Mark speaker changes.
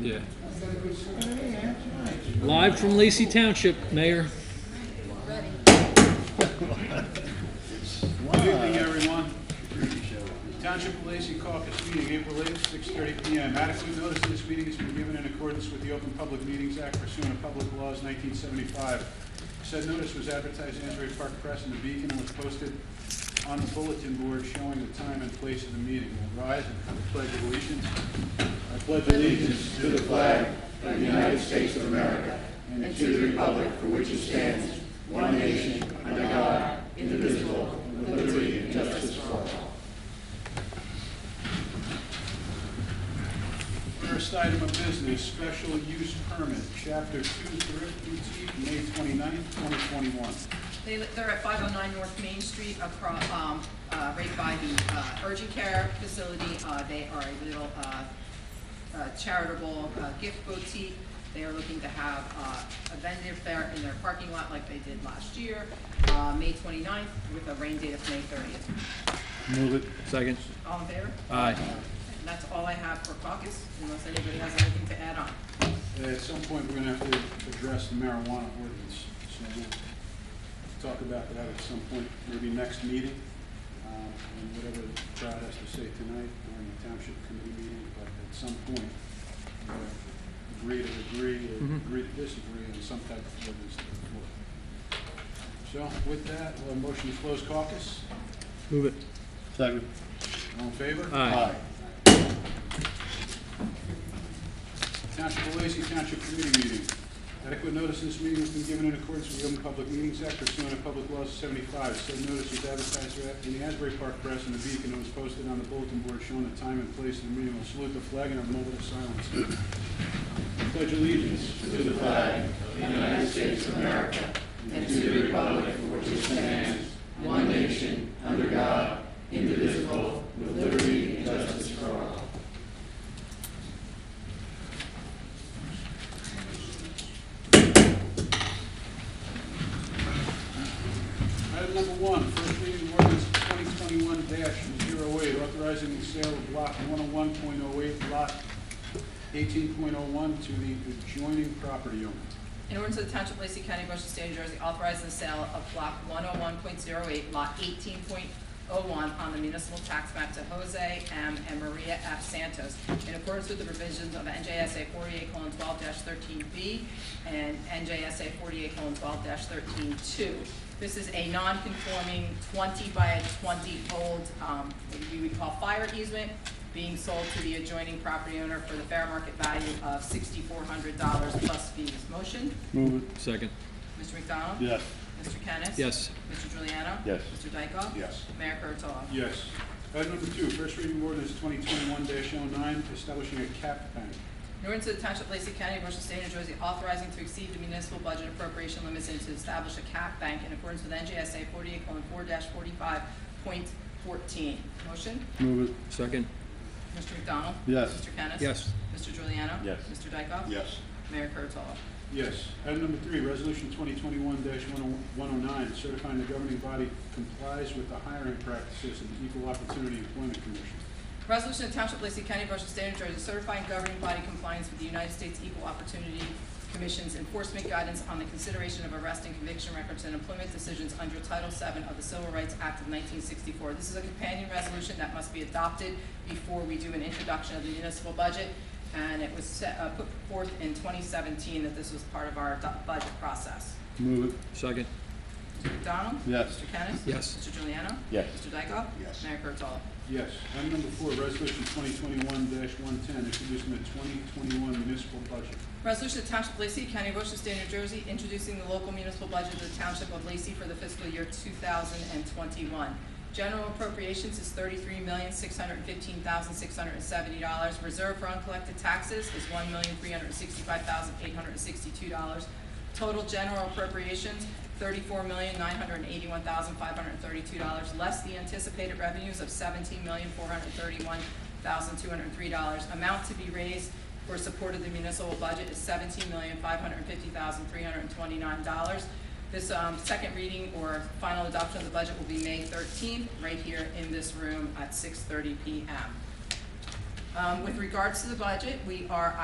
Speaker 1: Yeah. Live from Lacey Township, Mayor.
Speaker 2: Good evening, everyone. Township of Lacey Caucus meeting, April 8th, 6:30 PM. Adequate notice of this meeting has been given in accordance with the Open Public Meetings Act pursuant to public laws 1975. Said notice was advertised in Asbury Park Press and the Beacon and was posted on the bulletin board showing the time and place of the meeting. We'll Rise and have a pledge of allegiance. I pledge allegiance to the flag First item of business, special use permit, chapter two, thrift boutique, May 29th, 2021.
Speaker 3: They, they're at five oh nine North Main Street across, um, uh, right by the, uh, urgent care facility. Uh, they are a little, uh, uh, charitable, uh, gift boutique. They are looking to have, uh, a vendor fair in their parking lot like they did last year, uh, May 29th with a rain date of May thirtieth.
Speaker 1: Move it. Second.
Speaker 3: All in favor?
Speaker 1: Aye.
Speaker 3: And that's all I have for caucus, unless anybody has anything to add on.
Speaker 2: Uh, At some point, we're gonna have to address the marijuana ordinance, so we'll talk about that at some point, maybe next meeting, um, and whatever the crowd has to say tonight during the township committee meeting, but at some point, we're gonna agree to agree, or agree to disagree on some type of ordinance to the floor. So with that, we'll have a motion to close caucus,
Speaker 1: Move it.
Speaker 4: Second.
Speaker 2: all in favor?
Speaker 1: Aye.
Speaker 2: Township of Lacey Township Committee meeting. Adequate notice of this meeting has been given in accordance with the Open Public Meetings Act pursuant to Public Law 75. Said notice was advertised in the Asbury Park Press and the Beacon and was posted on the bulletin board showing the time and place of the meeting. We'll salute the flag in a moment of silence. Pledge allegiance to the flag Item number one, first reading of ordinance twenty twenty-one 8 authorizing the sale of block one oh one point oh eight, lot eighteen point oh one to the adjoining property owner.
Speaker 3: In order to the Township of Lacey County, Ocean State, New Jersey, authorizing the sale of block one oh one point zero eight, lot eighteen point oh one on the municipal tax map to Jose M. and Maria F. Santos in accordance with the provisions of NJSA forty-eight twelve thirteen B and NJSA forty-eight twelve thirteen two. This is a non-conforming twenty by a twenty-old, um, what we would call fire easement being sold to the adjoining property owner for the fair market value of sixty-four hundred dollars plus fees. Motion?
Speaker 4: Move it.
Speaker 1: Second.
Speaker 3: Mr. McDonald?
Speaker 4: Yes.
Speaker 3: Mr. Kennis?
Speaker 1: Yes.
Speaker 3: Mr. Juliano?
Speaker 4: Yes.
Speaker 3: Mr. Dykoff?
Speaker 2: Yes.
Speaker 3: Mayor Kurtolo?
Speaker 2: Yes. Item number two, first reading of ordinance twenty twenty-one 9 establishing a cap bank.
Speaker 3: In order to the Township of Lacey County, Ocean State, New Jersey, authorizing to exceed the municipal budget appropriation limits and to establish a cap bank in accordance with NJSA forty-eight four forty-five point fourteen. Motion?
Speaker 4: Move it.
Speaker 1: Second.
Speaker 3: Mr. McDonald?
Speaker 4: Yes.
Speaker 3: Mr. Kennis?
Speaker 1: Yes.
Speaker 3: Mr. Juliano?
Speaker 4: Yes.
Speaker 3: Mr. Dykoff?
Speaker 2: Yes.
Speaker 3: Mayor Kurtolo?
Speaker 2: Yes. Item number three, resolution twenty twenty-one one oh nine, certifying the governing body complies with the hiring practices of the Equal Opportunity Employment Commission.
Speaker 3: Resolution of Township of Lacey County, Ocean State, New Jersey, certifying governing body compliance with the United States Equal Opportunity Commission's enforcement guidance on the consideration of arrest and conviction records and employment decisions under Title VII of the Civil Rights Act of 1964. This is a companion resolution that must be adopted before we do an introduction of the municipal budget, and it was set- uh, put forth in 2017 that this was part of our do- budget process.
Speaker 4: Move it.
Speaker 1: Second.
Speaker 3: Mr. McDonald?
Speaker 4: Yes.
Speaker 3: Mr. Kennis?
Speaker 1: Yes.
Speaker 3: Mr. Juliano?
Speaker 4: Yes.
Speaker 3: Mr. Dykoff?
Speaker 2: Yes.
Speaker 3: Mayor Kurtolo?
Speaker 2: Yes. Item number four, resolution twenty twenty-one one ten, introducing the twenty twenty-one municipal budget.
Speaker 3: Resolution to Township of Lacey, County of Ocean, State of New Jersey, introducing the local municipal budget of the Township of Lacey for the fiscal year two thousand and twenty-one. General appropriations is thirty-three million, six hundred and fifteen thousand, six hundred and seventy dollars. Reserve for uncollected taxes is one million, three hundred and sixty-five thousand, eight hundred and sixty-two dollars. Total general appropriations, thirty-four million, nine hundred and eighty-one thousand, five hundred and thirty-two dollars, less the anticipated revenues of seventeen million, four hundred and thirty-one thousand, two hundred and three dollars. Amount to be raised for support of the municipal budget is seventeen million, five hundred and fifty thousand, three hundred and twenty-nine dollars. This, um, second reading or final adoption of the budget will be May thirteenth, right here in this room at six thirty P M. Um, with regards to the budget, we are